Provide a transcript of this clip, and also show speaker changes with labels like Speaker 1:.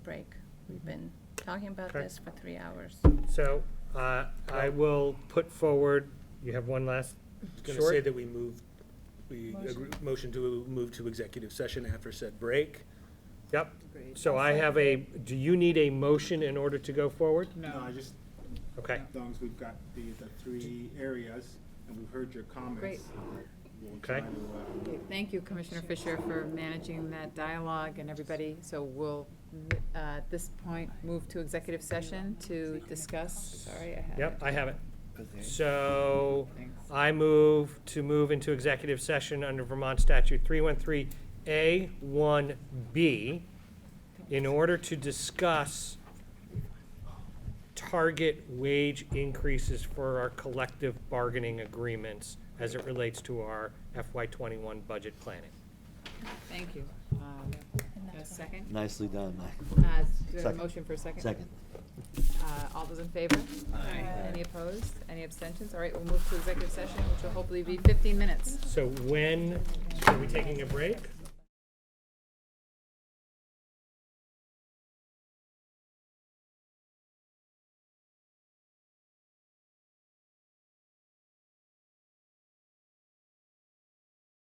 Speaker 1: break. We've been talking about
Speaker 2: Okay.
Speaker 1: this for three hours.
Speaker 2: So uh, I will put forward, you have one last
Speaker 3: Going to say
Speaker 2: short?
Speaker 3: that we move, we, agree- motion to move to executive session after said break.
Speaker 2: Yep. So I have a, do you need a motion in order to go forward?
Speaker 4: No, I just, as
Speaker 2: Okay,
Speaker 4: long as we've got the, the three areas, and we've heard your comments. we'll
Speaker 2: Okay.
Speaker 4: try to, uh,
Speaker 5: Okay, Thank you, Commissioner Fisher, for managing that dialogue and everybody. So we'll, uh, at this point, move to executive session to discuss, sorry, I had.
Speaker 2: yep,
Speaker 5: it.
Speaker 2: I have it. So I move to move into executive session under Vermont Statute 313A1B in order to discuss target wage increases for our collective bargaining agreements as it relates to our FY21 budget planning.
Speaker 5: Thank you. Um, A second?
Speaker 6: Nicely done, Mike.
Speaker 5: Uh, is there a
Speaker 6: Second.
Speaker 5: motion for a second?
Speaker 6: Second.
Speaker 5: Uh, All those in favor? Any opposed? Any abstentions? All right, we'll move to executive session, which will hopefully be 15 minutes.
Speaker 2: So when, are we taking a break?